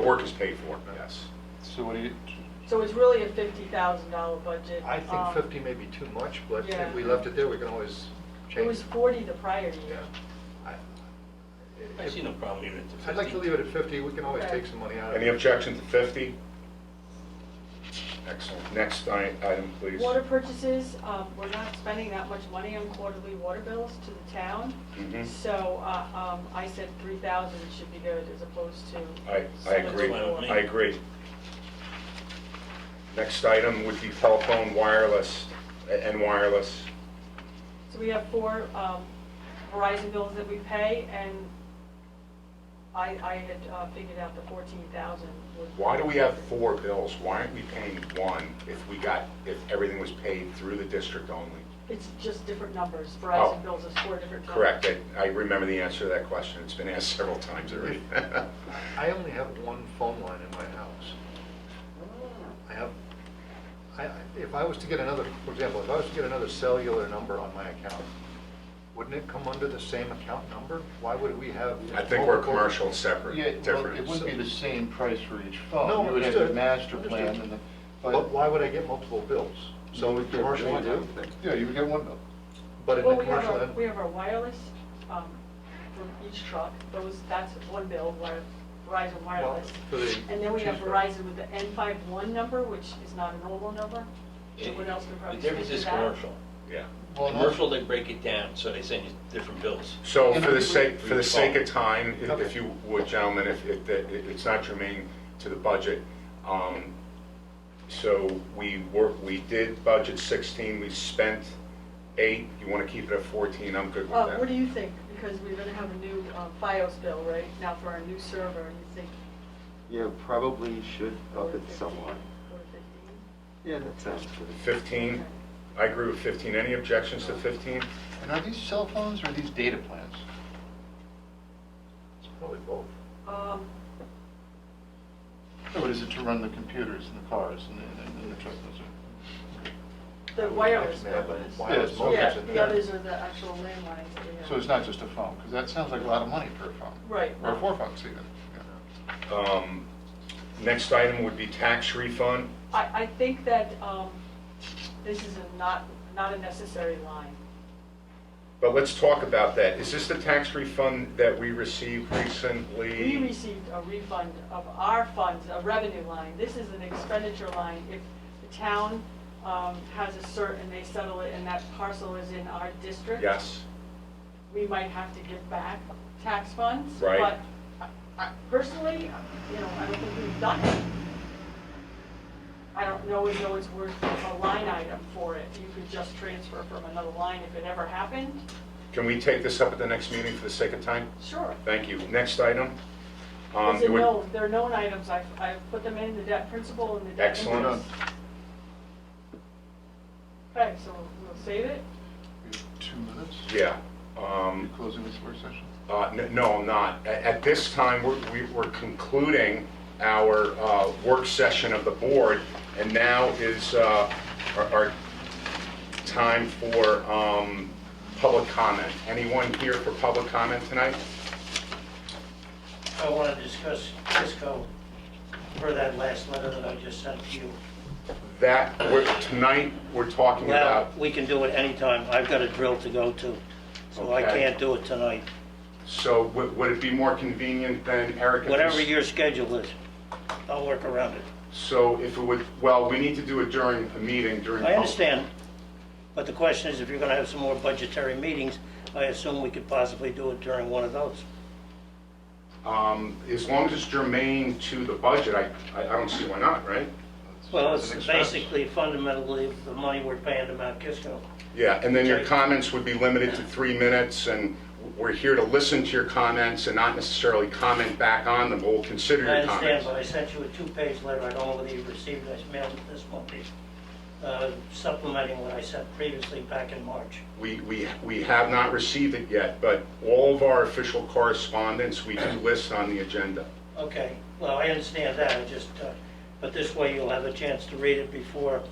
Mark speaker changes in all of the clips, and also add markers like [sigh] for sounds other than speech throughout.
Speaker 1: The work is paid for, yes.
Speaker 2: So what do you,
Speaker 3: So it's really a fifty thousand dollar budget.
Speaker 4: I
Speaker 3: Um,
Speaker 4: think 50 may be too much, but
Speaker 3: yeah.
Speaker 4: if we left it there, we can always
Speaker 3: It
Speaker 4: change
Speaker 3: was
Speaker 4: it.
Speaker 3: forty the prior year.
Speaker 4: Yeah. I-
Speaker 5: I see no problem even at the 15.
Speaker 4: I'd like to leave it at 50, we can always
Speaker 3: Okay.
Speaker 4: take some money out of it.
Speaker 1: Any objection to 50? Excellent. Next i- item, please.
Speaker 3: Water purchases, um, we're not spending that much money on quarterly water bills to the town.
Speaker 1: Mhm.
Speaker 3: So, uh, um, I said three thousand should be good as opposed to.
Speaker 1: I, I
Speaker 3: so much
Speaker 1: agree,
Speaker 3: more.
Speaker 5: That's fine with me.
Speaker 1: I agree. Next item would be telephone wireless, a- and wireless.
Speaker 3: So we have four um, Verizon bills that we pay, and I, I had uh, figured out the fourteen thousand would.
Speaker 1: Why do we have four bills? Why aren't we paying one if we got, if everything was paid through the district only?
Speaker 3: It's just different numbers.
Speaker 1: Oh.
Speaker 3: Verizon bills is four different numbers.
Speaker 1: Correct, I- I remember the answer to that question, it's been asked [laughs] several times already.
Speaker 4: I only have one phone line in my house. I have, I, I- if I was to get another, for example, if I was to get another cellular number on my account, wouldn't it come under the same account number? Why would we have?
Speaker 1: I think we're
Speaker 4: multiple-
Speaker 1: commercial, separate,
Speaker 6: Yeah, well,
Speaker 1: different.
Speaker 6: it wouldn't be the same price for each phone.
Speaker 4: No,
Speaker 6: You would have
Speaker 4: understood,
Speaker 6: the master plan
Speaker 4: understood.
Speaker 6: and the,
Speaker 4: But
Speaker 6: but.
Speaker 4: why would I get multiple bills? So
Speaker 6: would get-
Speaker 4: commercial, I do,
Speaker 6: Yeah, you would get one bill.
Speaker 4: but in
Speaker 3: Well,
Speaker 4: the
Speaker 3: we have
Speaker 4: commercial
Speaker 3: our,
Speaker 4: end.
Speaker 3: we have our wireless um, from each truck, those, that's one bill, wire- Verizon wireless.
Speaker 4: for the
Speaker 3: And then we have
Speaker 4: cheaper.
Speaker 3: Verizon with the N five one number, which is not a normal number.
Speaker 5: It-
Speaker 3: Someone else can
Speaker 5: The
Speaker 3: probably speak to that.
Speaker 5: difference is commercial.
Speaker 1: Yeah.
Speaker 6: Well, no.
Speaker 5: Commercial, they break it down, so they send you different bills.
Speaker 1: So
Speaker 6: And
Speaker 1: for the
Speaker 6: we-
Speaker 1: sake, for the
Speaker 5: we-
Speaker 1: sake of time, if- if
Speaker 4: Okay.
Speaker 1: you would, gentlemen, if, if that- if it's not germane to the budget, um, so we were, we did budget 16, we spent eight, you want to keep it at 14, I'm good with
Speaker 3: Uh, what do
Speaker 1: that.
Speaker 3: you think? Because we're gonna have a new uh, FiOS bill, right, now for our new server, and you think.
Speaker 7: Yeah, probably should
Speaker 3: four
Speaker 7: up it
Speaker 3: fifteen,
Speaker 7: somewhat.
Speaker 3: four fifteen?
Speaker 7: Yeah, that sounds good.
Speaker 4: Mm-hmm.
Speaker 1: 15, I agree with 15, any objections to 15?
Speaker 6: And are these cell phones or are these data plans?
Speaker 4: It's Probably both.
Speaker 3: Um,
Speaker 6: Or is it to run the computers and the cars and the- and the, and the trucks? Those are-
Speaker 3: the wireless
Speaker 4: Yeah,
Speaker 3: bill is.
Speaker 4: Wireless
Speaker 6: Yeah,
Speaker 4: modems
Speaker 3: Yeah,
Speaker 4: in
Speaker 3: the
Speaker 4: there.
Speaker 3: others are the actual landlines that we have.
Speaker 6: So it's not just a phone, because that sounds like a lot of money for a phone.
Speaker 3: Right.
Speaker 6: Or four phones even. yeah.
Speaker 1: Um, Next item would be tax refund.
Speaker 3: I, I think that, um, this is a not, not a necessary line.
Speaker 1: But let's talk about that. Is this the tax refund that we received
Speaker 3: We
Speaker 1: recently?
Speaker 3: received a refund of our funds, a revenue line. This is an expenditure line. If the town, um, has a cert and they settle it and that parcel is in our district.
Speaker 1: Yes.
Speaker 3: We might have to give back tax funds.
Speaker 1: Right.
Speaker 3: But I- I- personally, you know, I don't think we've done it. I don't know as though it's worth a line item for it. You could just transfer from another line if it ever happened.
Speaker 1: Can we take this up at the next meeting for the sake of time?
Speaker 3: Sure.
Speaker 1: Thank you. Next item. um,
Speaker 3: These are
Speaker 1: it would-
Speaker 3: known, they're known items, I've, I've put them in, the debt principal and the debt
Speaker 1: Excellent.
Speaker 3: interest. Okay, so we'll save it,
Speaker 6: We have Two minutes?
Speaker 1: Yeah.
Speaker 6: Are you
Speaker 1: um,
Speaker 6: closing this work session?
Speaker 1: uh, n- No, I'm not. A- At this time, we're- we- we're concluding our uh, work session of the board, and now is uh, our our time for um, public comment. Anyone here for public comment tonight?
Speaker 8: I want to discuss Kisco for that last letter that I just sent to you.
Speaker 1: That, we're- tonight, we're talking
Speaker 8: Well,
Speaker 1: about,
Speaker 8: we can do it anytime. I've got a drill to go to, so I
Speaker 1: Okay.
Speaker 8: can't do it tonight.
Speaker 1: so would would it be more convenient than Erica?
Speaker 8: Whatever your schedule is, I'll work around it.
Speaker 1: So if it would, well, we need to do it during a meeting, during.
Speaker 8: I understand, but the question is, if you're going to have some more budgetary meetings, I assume we could possibly do it during one of those.
Speaker 1: Um, As long as it's germane to the budget, I, I I don't see why not, right?
Speaker 8: Well,
Speaker 6: It's
Speaker 8: it's
Speaker 6: an expense.
Speaker 8: basically fundamentally the money we're paying to Mount Kisco.
Speaker 1: Yeah, and then your
Speaker 8: Okay.
Speaker 1: comments would be limited to three minutes, and we're here to listen to your comments and not necessarily comment back on them, but we'll consider
Speaker 8: I
Speaker 1: your
Speaker 8: understand,
Speaker 1: comments.
Speaker 8: but I sent you a two-page letter, I don't know whether you received it, I mailed it this morning, uh, supplementing what I sent previously back in March.
Speaker 1: We, we, we have not received it yet, but all of our official correspondence, we do list on the agenda.
Speaker 8: Okay, well, I understand that, I just, uh, but this way you'll have a chance to read it before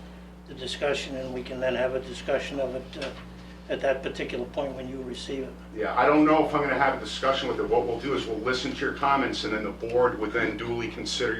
Speaker 8: the discussion, and we can then have a discussion of it uh, at that particular point when you receive it.
Speaker 1: Yeah, I don't know if I'm gonna have a discussion with it. What we'll do is we'll listen to your comments, and then the board would then duly consider your